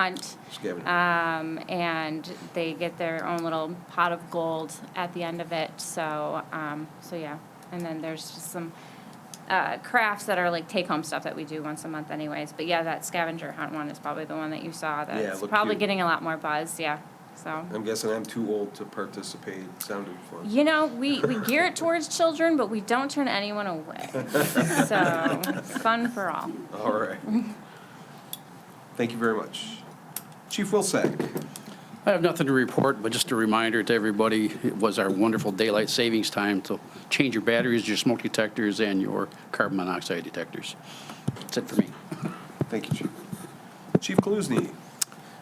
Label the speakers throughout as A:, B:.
A: hunt,
B: Scavenger.
A: um, and they get their own little pot of gold at the end of it, so, um, so yeah. And then there's just some, uh, crafts that are like take-home stuff that we do once a month anyways, but yeah, that scavenger hunt one is probably the one that you saw
B: Yeah, it
A: that's
B: looked
A: probably
B: cute.
A: getting a lot more buzz, yeah, so.
B: I'm guessing I'm too old to participate. Sounded fun.
A: You know, we, we gear it towards children, but we don't turn anyone away, so, fun for all.
B: All right. Thank you very much. Chief Wilsack.
C: I have nothing to report, but just a reminder to everybody, it was our wonderful daylight savings time to change your batteries, your smoke detectors, and your carbon monoxide detectors. That's it for me.
B: Thank you, Chief. Chief Kaluzny.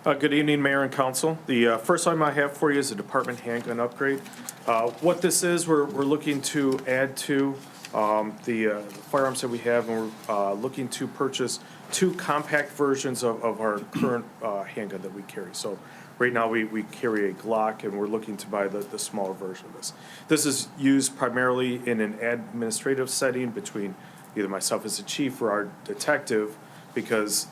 D: Uh, Good evening, Mayor and Council. The uh, first item I have for you is a department handgun upgrade. Uh, What this is, we're, we're looking to add to um, the uh, firearms that we have, and we're uh, looking to purchase two compact versions of, of our current uh, handgun that we carry. So right now, we, we carry a Glock, and we're looking to buy the, the smaller version of this. This is used primarily in an administrative setting between either myself as a chief or our detective, because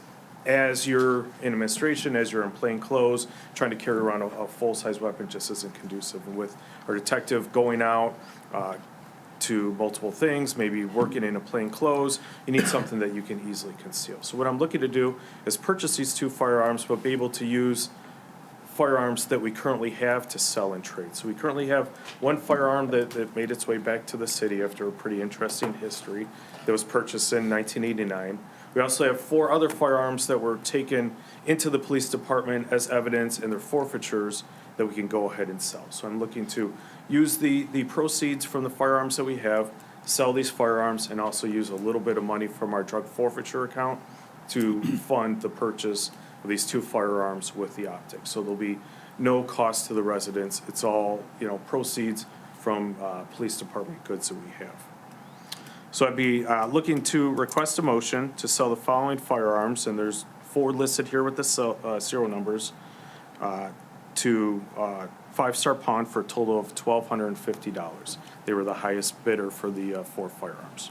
D: as you're in administration, as you're in plain clothes, trying to carry around a, a full-size weapon just isn't conducive. And with our detective going out uh, to multiple things, maybe working in a plain clothes, you need something that you can easily conceal. So what I'm looking to do is purchase these two firearms, but be able to use firearms that we currently have to sell and trade. So we currently have one firearm that, that made its way back to the city after a pretty interesting history that was purchased in 1989. We also have four other firearms that were taken into the police department as evidence and their forfeitures that we can go ahead and sell. So I'm looking to use the, the proceeds from the firearms that we have, sell these firearms, and also use a little bit of money from our drug forfeiture account to fund the purchase of these two firearms with the optics. So there'll be no cost to the residents. It's all, you know, proceeds from uh, police department goods that we have. So I'd be uh, looking to request a motion to sell the following firearms, and there's four listed here with the sel- uh, serial numbers, uh, to uh, Five Star Pond for a total of $1,250. They were the highest bidder for the uh, four firearms.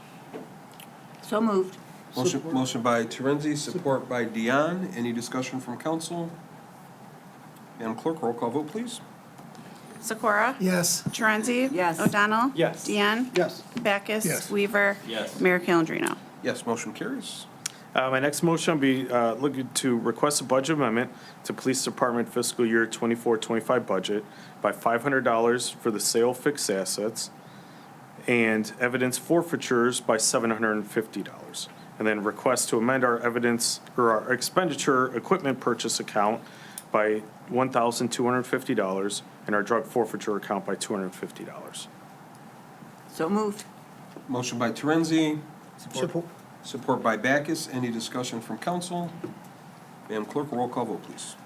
E: So moved.
B: Motion, motion by Terenzi, support by Dion. Any discussion from council? Madam Clerk, roll call vote, please.
F: Sikora?
G: Yes.
F: Torenzi?
E: Yes.
F: O'Donnell?
D: Yes.
F: Deanne?
G: Yes.
F: Backus?
G: Yes.
F: Weaver?
H: Yes.
F: Mayor Calendino?
B: Yes, motion carries.
D: Uh, My next motion will be uh, looking to request a budget amendment to Police Department fiscal year 24-25 budget by five hundred dollars for the sale of fixed assets and evidence forfeitures by seven hundred and fifty dollars. And then request to amend our evidence or our expenditure equipment purchase account by one thousand two hundred and fifty dollars and our drug forfeiture account by two hundred and fifty dollars.
E: So moved.
B: Motion by Terenzi,
G: Support.
B: support by Backus. Any discussion from council? Madam Clerk, roll call vote, please.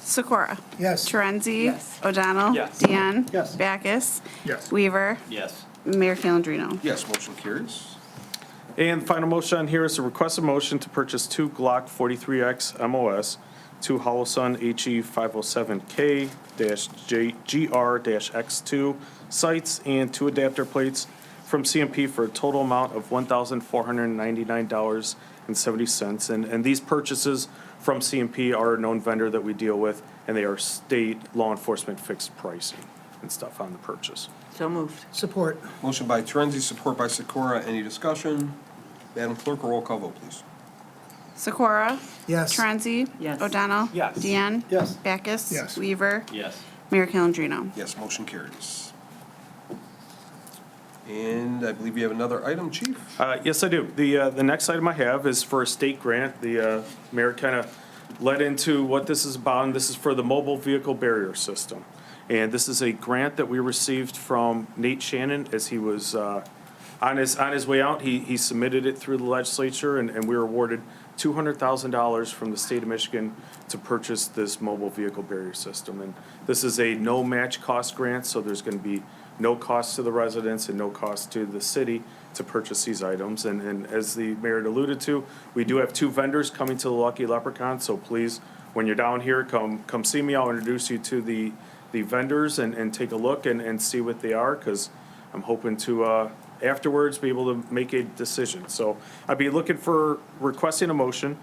F: Sikora?
G: Yes.
F: Torenzi?
E: Yes.
F: O'Donnell?
H: Yes.
F: Deanne?
G: Yes.
F: Backus?
G: Yes.
F: Weaver?
H: Yes.
F: Mayor Calendino?
B: Yes, motion carries.
D: And the final motion on here is to request a motion to purchase two Glock 43X MOS, two Holosun HE 507K dash J- GR dash X2 sights, and two adapter plates from CMP for a total amount of $1,499.70. And, and these purchases from CMP are a known vendor that we deal with, and they are state law enforcement fixed pricing and stuff on the purchase.
E: So moved.
G: Support.
B: Motion by Torenzi, support by Sikora. Any discussion? Madam Clerk, roll call vote, please.
F: Sikora?
G: Yes.
F: Torenzi?
E: Yes.
F: O'Donnell?
H: Yes.
F: Deanne?
G: Yes.
F: Backus?
G: Yes.
F: Weaver?
H: Yes.
F: Mayor Calendino?
B: Yes, motion carries. And I believe you have another item, Chief?
D: Uh, Yes, I do. The, uh, the next item I have is for a state grant. The uh, mayor kind of led into what this is about, and this is for the mobile vehicle barrier system. And this is a grant that we received from Nate Shannon as he was uh, on his, on his way out. He, he submitted it through the legislature, and, and we were awarded $200,000 from the state of Michigan to purchase this mobile vehicle barrier system. And this is a no-match cost grant, so there's going to be no cost to the residents and no cost to the city to purchase these items. And, and as the mayor had alluded to, we do have two vendors coming to the Lucky Leprechaun, so please, when you're down here, come, come see me. I'll introduce you to the, the vendors and, and take a look and, and see what they are, because I'm hoping to, uh, afterwards, be able to make a decision. So I'd be looking for, requesting a motion